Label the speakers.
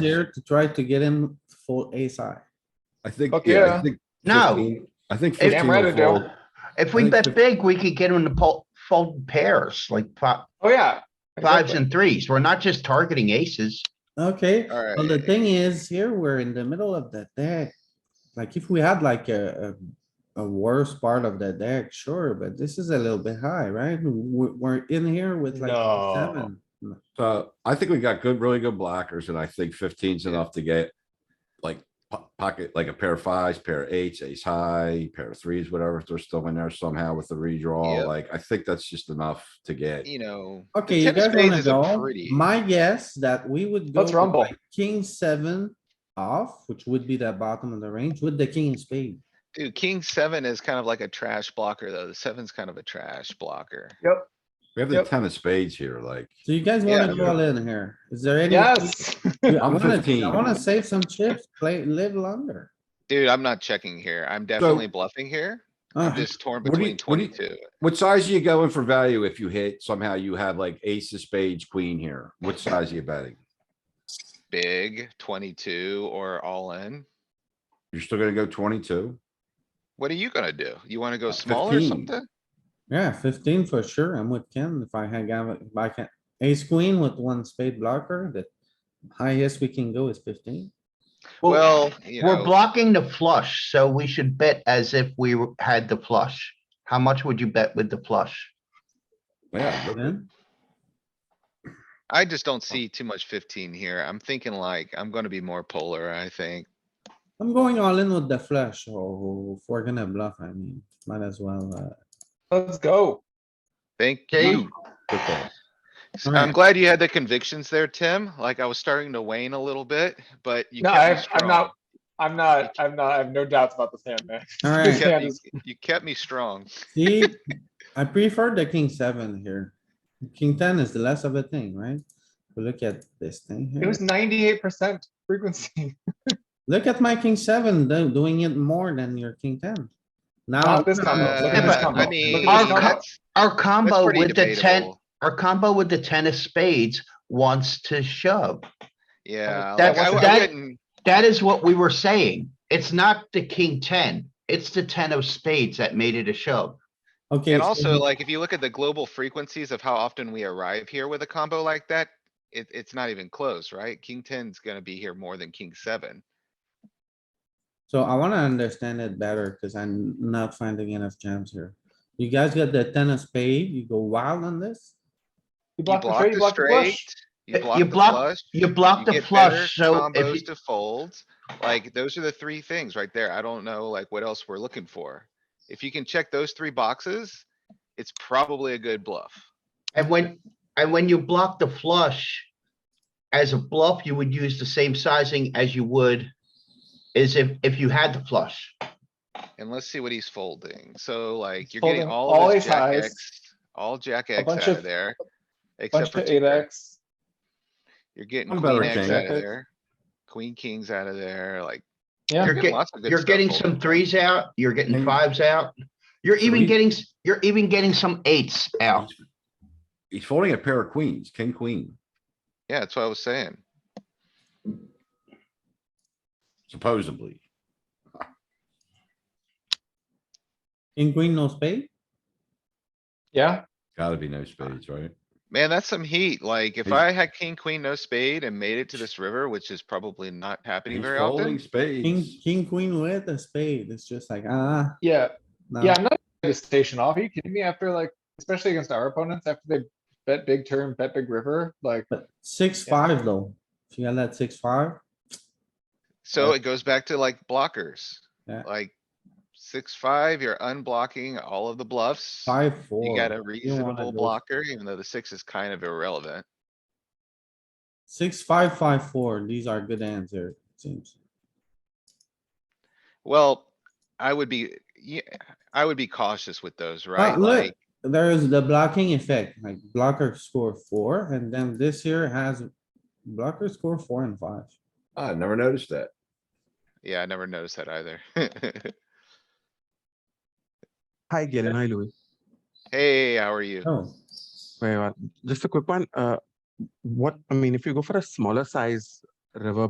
Speaker 1: here to try to get him for ace high.
Speaker 2: I think,
Speaker 3: Fuck
Speaker 2: yeah, I
Speaker 3: yeah.
Speaker 2: think.
Speaker 4: No.
Speaker 2: 15 I think
Speaker 4: Damn
Speaker 2: fifteen
Speaker 3: right I
Speaker 2: will
Speaker 3: do.
Speaker 2: fold.
Speaker 4: If we bet big, we could get him to fold, fold in pairs, like fi-
Speaker 3: Oh, yeah.
Speaker 4: fives and threes. We're not just targeting aces.
Speaker 1: Okay,
Speaker 3: Alright.
Speaker 1: well, the thing is, here we're in the middle of the deck. Like if we had like a, a, a worse part of the deck, sure, but this is a little bit high, right? We're, we're in here with like
Speaker 3: No.
Speaker 1: seven.
Speaker 2: So Uh, I think we got good, really good blockers and I think 15's enough to get like po- pocket, like a pair of fives, pair of eights, ace high, pair of threes, whatever. If they're still in there somehow with the redraw,
Speaker 5: Yep.
Speaker 2: like I think that's just enough to get.
Speaker 5: you know. the
Speaker 1: Okay, you
Speaker 5: ten of
Speaker 1: guys
Speaker 5: spades
Speaker 1: wanna
Speaker 5: is a
Speaker 1: go?
Speaker 5: pretty-
Speaker 1: My guess that we would go.
Speaker 3: Let's
Speaker 1: with,
Speaker 3: rumble.
Speaker 1: like, King seven off, which would be the bottom of the range with the king spade.
Speaker 5: Dude, king seven is kind of like a trash blocker, though. The seven's kind of a trash blocker.
Speaker 2: We have the
Speaker 3: Yep.
Speaker 2: ten of spades here, like.
Speaker 1: So you guys
Speaker 5: Yeah.
Speaker 1: wanna go all in here? Is there any?
Speaker 3: Yes.
Speaker 1: I
Speaker 2: I'm
Speaker 1: wanna, I
Speaker 2: 15.
Speaker 1: wanna save some chips, play, live longer.
Speaker 5: Dude, I'm not checking here. I'm definitely bluffing here. I'm
Speaker 1: Ah,
Speaker 5: just torn
Speaker 2: what do you-
Speaker 5: between
Speaker 2: what do you-
Speaker 5: twenty-two.
Speaker 2: What size are you going for value if you hit somehow you have like ace of spades, queen here? What size are you betting?
Speaker 5: Big, twenty-two, or all in.
Speaker 2: You're still gonna go twenty-two?
Speaker 5: What are you gonna do? You wanna
Speaker 2: Uh,
Speaker 5: go small or
Speaker 2: 15.
Speaker 5: something?
Speaker 1: Yeah, fifteen for sure. I'm with Ken. If I had, got- if I can, ace queen with one spade blocker, the highest we can go is fifteen.
Speaker 5: Well, you
Speaker 4: We're
Speaker 5: know,
Speaker 4: blocking the flush, so we should bet as if we were- had the flush. How much would you bet with the flush?
Speaker 2: Yeah, but-
Speaker 1: Then,
Speaker 5: I just
Speaker 2: Oh.
Speaker 5: don't see too much fifteen here. I'm thinking like, I'm gonna be more polar, I think.
Speaker 1: I'm going all in with the flush, or if we're gonna bluff, I mean, might as well, uh,
Speaker 3: Let's go.
Speaker 5: Thank
Speaker 4: Okay.
Speaker 5: you.
Speaker 2: good call.
Speaker 5: S- I'm glad you had the convictions there, Tim. Like I was starting to wane a little bit, but you
Speaker 3: No,
Speaker 5: kept me
Speaker 3: I've, I'm
Speaker 5: strong.
Speaker 3: not, I'm not, I'm not, I have no doubts about this hand, man.
Speaker 5: You
Speaker 1: alright.
Speaker 3: Yeah,
Speaker 5: kept me-
Speaker 3: this-
Speaker 5: You kept me strong.
Speaker 1: See, I prefer the king seven here. King ten is the less of a thing, right? If We look at this thing
Speaker 3: It
Speaker 1: here.
Speaker 3: was ninety-eight percent frequency.
Speaker 1: Look at my king seven, though, doing it more than your king ten. Now,
Speaker 3: Not this combo. Look at
Speaker 4: Uh,
Speaker 3: this
Speaker 4: I
Speaker 5: Uh,
Speaker 3: combo.
Speaker 5: I
Speaker 3: Look
Speaker 5: mean,
Speaker 3: at this combo.
Speaker 5: that's,
Speaker 4: Our
Speaker 5: that's
Speaker 4: combo
Speaker 5: pretty
Speaker 4: with the ten,
Speaker 5: debatable.
Speaker 4: our combo with the ten of spades wants to shove.
Speaker 5: Yeah.
Speaker 4: That-
Speaker 5: like, I- I
Speaker 4: that-
Speaker 5: wouldn't-
Speaker 4: That is what we were saying. It's not the king ten, it's the ten of spades that made it a shove.
Speaker 1: okay.
Speaker 5: And
Speaker 1: so
Speaker 5: also,
Speaker 1: we-
Speaker 5: like, if you look at the global frequencies of how often we arrive here with a combo like that, it, it's not even close, right? King ten's gonna be here more than king seven.
Speaker 1: So I wanna understand it better, cause I'm not finding enough jams here. You guys got the ten of spade, you go wild on this?
Speaker 3: You
Speaker 5: You
Speaker 3: block the
Speaker 5: block
Speaker 3: straight, you block the flush.
Speaker 5: the straight, you
Speaker 4: Uh,
Speaker 5: block
Speaker 4: you
Speaker 5: the
Speaker 4: block-
Speaker 5: flush.
Speaker 4: You blocked
Speaker 5: you
Speaker 4: the
Speaker 5: get better
Speaker 4: flush, so if
Speaker 5: Combos
Speaker 4: you,
Speaker 5: to fold, like, those are the three things right there. I don't know, like, what else we're looking for. If you can check those three boxes, it's probably a good bluff.
Speaker 4: and when, and when you block the flush. As a bluff, you would use the same sizing as you would. Is if, if you had the flush.
Speaker 5: And let's see what he's folding. So like,
Speaker 3: He's
Speaker 5: you're getting
Speaker 3: folding
Speaker 5: all
Speaker 3: all
Speaker 5: of his
Speaker 3: his
Speaker 5: jack
Speaker 3: highs,
Speaker 5: X, all jack X
Speaker 3: bunch
Speaker 5: out of
Speaker 3: of-
Speaker 5: there. Except
Speaker 3: Bunch
Speaker 5: for
Speaker 3: to
Speaker 5: two
Speaker 3: eight
Speaker 5: pair.
Speaker 3: X.
Speaker 5: You're getting
Speaker 2: I'm better
Speaker 5: queen
Speaker 2: at
Speaker 5: X
Speaker 2: king.
Speaker 5: out of
Speaker 3: Okay.
Speaker 5: there. Queen kings out of there, like.
Speaker 3: Yeah.
Speaker 4: You're getting,
Speaker 5: lots of good
Speaker 4: you're
Speaker 5: stuff
Speaker 4: getting
Speaker 5: folded.
Speaker 4: some threes out, you're
Speaker 2: Maybe.
Speaker 4: getting fives out. You're even
Speaker 2: Three.
Speaker 4: getting, s- you're even getting some eights out.
Speaker 2: He's folding a pair of queens, king, queen,
Speaker 5: Yeah, that's what I was saying.
Speaker 2: supposedly.
Speaker 1: In green, no spade?
Speaker 3: Yeah,
Speaker 2: Gotta be
Speaker 5: Uh,
Speaker 2: no spades, right?
Speaker 5: Man, that's some heat. Like if
Speaker 2: He's-
Speaker 5: I had king, queen, no spade and made it to this river, which is probably not happening
Speaker 2: He's
Speaker 5: very
Speaker 2: folding
Speaker 5: often.
Speaker 1: King,
Speaker 2: spades.
Speaker 1: king, queen with a spade, it's just like, ah,
Speaker 3: yeah,
Speaker 1: no.
Speaker 5: Uh-huh.
Speaker 3: yeah, I'm not gonna station off. Are you kidding me? After like, especially against our opponents, after they bet big turn, bet big river, like.
Speaker 1: But six, five though, if you got that six, five,
Speaker 5: So
Speaker 3: Yeah.
Speaker 5: it goes back to like blockers.
Speaker 1: Yeah.
Speaker 5: Like six, five, you're unblocking all of the bluffs.
Speaker 1: five, four.
Speaker 5: You got a
Speaker 1: don't wanna
Speaker 5: reasonable
Speaker 1: go-
Speaker 5: blocker, even though the six is kind of irrelevant.
Speaker 1: Six, five, five, four, these are good hands here, it seems.
Speaker 5: Well, I would be, yeah, I would be cautious with those, right?
Speaker 1: look,
Speaker 5: Like,
Speaker 1: There is the blocking effect, like blocker score four, and then this here has blocker score four and five.
Speaker 2: I never noticed that.
Speaker 5: yeah, I never noticed that either.
Speaker 6: Hi, Galen. Hi, Louis.
Speaker 5: Hey, how are you?
Speaker 1: Oh,
Speaker 6: Very well. Just a quick one. Uh, what I mean, if you go for a smaller size river